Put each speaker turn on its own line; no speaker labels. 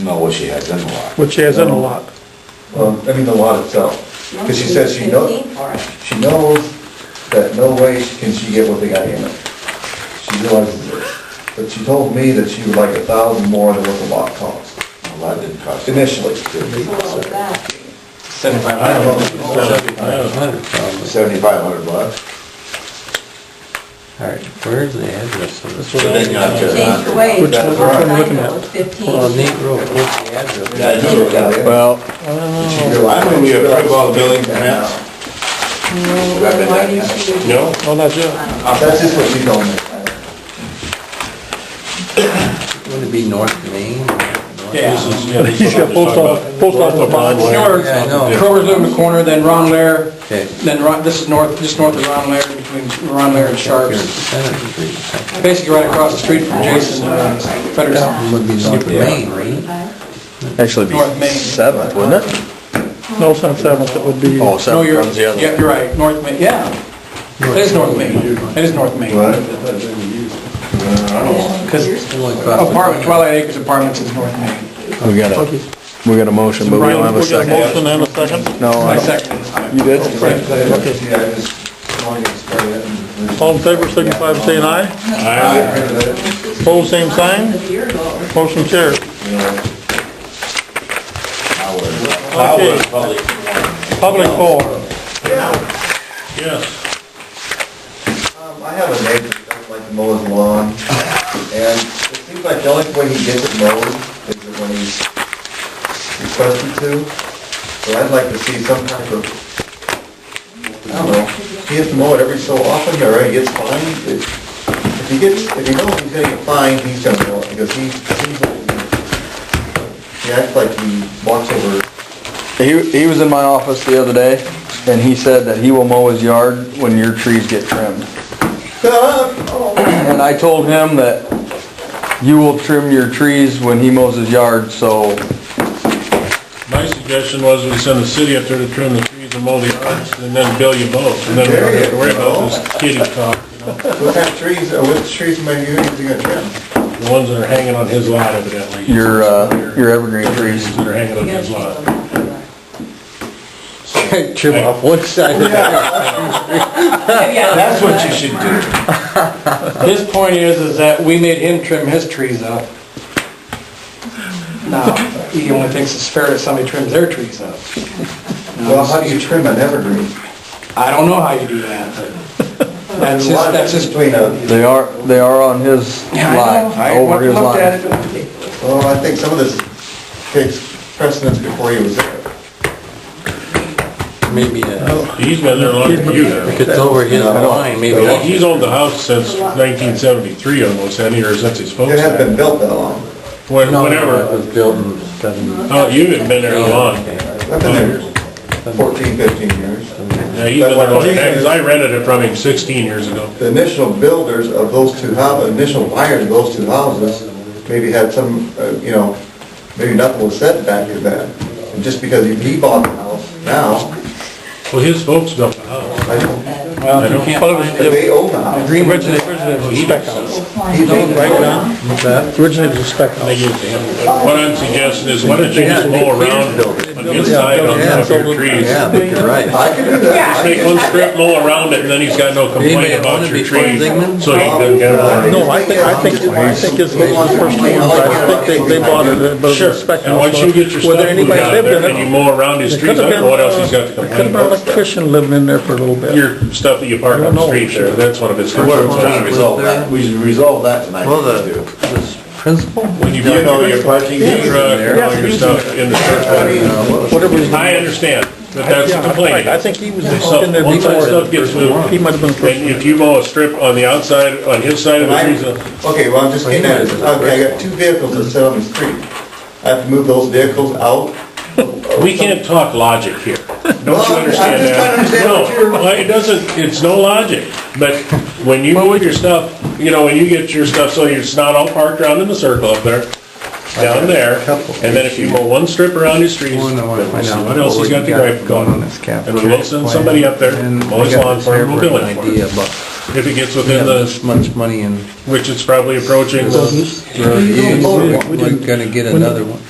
No, what she has in the lot.
which is in a lot.
Well, Um, I mean, the lot itself, because she says she knows,
Fifteen for it.
she knows that no way can she get what they got in it. She realizes this, but she told me that she would like a thousand more than what the lot cost
The lot didn't cost.
initially.
So what was that?
I don't know.
Seventy-five hundred bucks.
All right, where's the address of this?
So then you have to-
Change the way.
Which
one- which
Last
one
I
looking
know
at?
it was Fifteen.
Well, Neat Road, what's the address?
That's what we got.
Well.
Why don't we approve all the building permits?
No,
Wrap it
why
up.
do you see it?
No?
Oh, that's it.
That's just what she told me.
Would it be North Main?
This is, yeah. this is
You got
what
post
they're
office,
talking
post
about.
office box.
North
North,
Yeah, I know.
Kroger's on the corner, then Ron Lair,
Okay.
then Ron, this is north, just north of Ron Lair, between Ron Lair and
Here's
Sharps.
Center Street.
Basically right across the street from Jason's, uh, Federson,
That would be North Main, right?
Actually, it'd
North
be
Main.
seventh, wouldn't it?
No, it's not seventh, it would be,
Oh,
No,
seventh
you're,
comes the other.
yeah, you're right, North Main, yeah. It is North Main, it is North Main. Because
Oh,
apartment, Oh, Twilight Acres Apartments is North Main.
We got a,
okay.
we got a motion, but we don't have a
We got a
second.
motion and a second.
No,
My
I don't-
second is.
you did?
Yeah, I just wanted to explain it and-
All in favor, signify by saying aye. Pose same sign,
A year ago or
motion carried.
Howard,
Okay,
public.
public forum.
Yes.
Um, I have a neighbor that doesn't like to mow his lawn, and it seems like the only way he gets it mowed is when he's requested to. So I'd like to see some kind of, I don't know, he has to mow it every so often, or he gets fined. If if he gets, if he knows he's gonna get fined, he's gonna mow it, because he seems like he, he acts like he walks over
He, he was in my office the other day, and he said that he will mow his yard when your trees get trimmed. And I told him that you will trim your trees when he mows his yard, so
My suggestion was we send a city up there to trim the trees and mow the yards and then bill you both. And then we don't have to worry about this kitty talk, you know,
What kind of trees, uh, what trees am I using to get trimmed?
the ones that are hanging on his lot evidently.
your, uh, your evergreen trees.
That are hanging on
you guys
his
just
lot.
don't have to, uh,
Trim off one side.
That's what you should do.
His point is, is that we made him trim his trees up. Now, he only thinks it's fair if somebody trims their trees up.
Well, how do you trim an evergreen?
I don't know how you do that, but that's his, that's his.
Between a,
They are, they are on his
Yeah, I know. I
line, over his
looked at
line.
it.
well, I think some of this takes precedence before he was there.
Maybe uh,
He's been there longer than you have.
if it's over his line, maybe.
Well, He's owned the house since nineteen seventy-three almost, hasn't he, or since his folks.
It hasn't
had it.
been built that long.
When-
No, no, It
Whenever,
was built in seventy.
oh, you haven't been there long.
I've been there 14, 15 years.
Yeah, he's been there long, because I rented it from him sixteen years ago.
The initial builders of those two houses, initial buyers of those two houses, maybe had some, uh, you know, maybe nothing was said back to that. And just because he- he bought the house now,
Well, his folks built the house.
I don't,
Well, if you can't
Well, it was-
find
if
it.
they own the house.
Agreement
Originally, originally it was a spec house.
He thinks-
Originally it was a spec house.
They used to have- What I'm suggesting is, why don't you just mow around on the inside on top of your trees?
Yeah, but you're right.
I could do that.
Just Make one strip mow around it, and then he's got no complaint about your tree, so he doesn't get it.
No, I think, I think, I think it's the first one, I think they, they bought it, but it
Sure,
was a spec house.
and once you get your
Whether
stuff moved
anybody
out
lived
there,
in it,
and you mow around his
There
trees,
could
I don't
have been,
know what else he's got to
there could
complain
have been an
about.
electrician living in there for a little bit.
Your stuff that you park
I
on
don't
the
know.
street there, that's one of his concerns.
resolve that, we should resolve that tonight.
Well, the, this principal?
When you
You
park
know,
your
your parking
truck
meter,
and all your stuff in the surplus.
Whatever was.
I understand, but that's the
Yeah,
complaint.
right, I think he was
So,
in there
once that stuff
before.
gets moved,
He might have been the first
and if you mow a strip on the outside, on his side of the trees, uh,
Okay, well, I'm just getting at, it. okay, I got two vehicles that sit on the street. I have to move those vehicles out?
We can't talk logic here. Don't you
Well, I'm just
understand
trying to
that?
understand
No,
what you're-
well, it doesn't, it's no logic. But when you move your stuff, you know, when you get your stuff, so it's not all parked around in the circle up there, down there, and then if you mow one strip around his trees,
Well, I wanna
then we'll
find
see
out
what else he's
what we
got to
got
gripe
going
about.
on this cap
And we will send
plan.
somebody up there,
And
mow his
I got
lawn
this
for him, we'll bill
airport
him for
Idea,
it.
but
If it gets
we
within
have
the,
this much money and
which it's probably approaching the
we're not Oh, gonna get another one.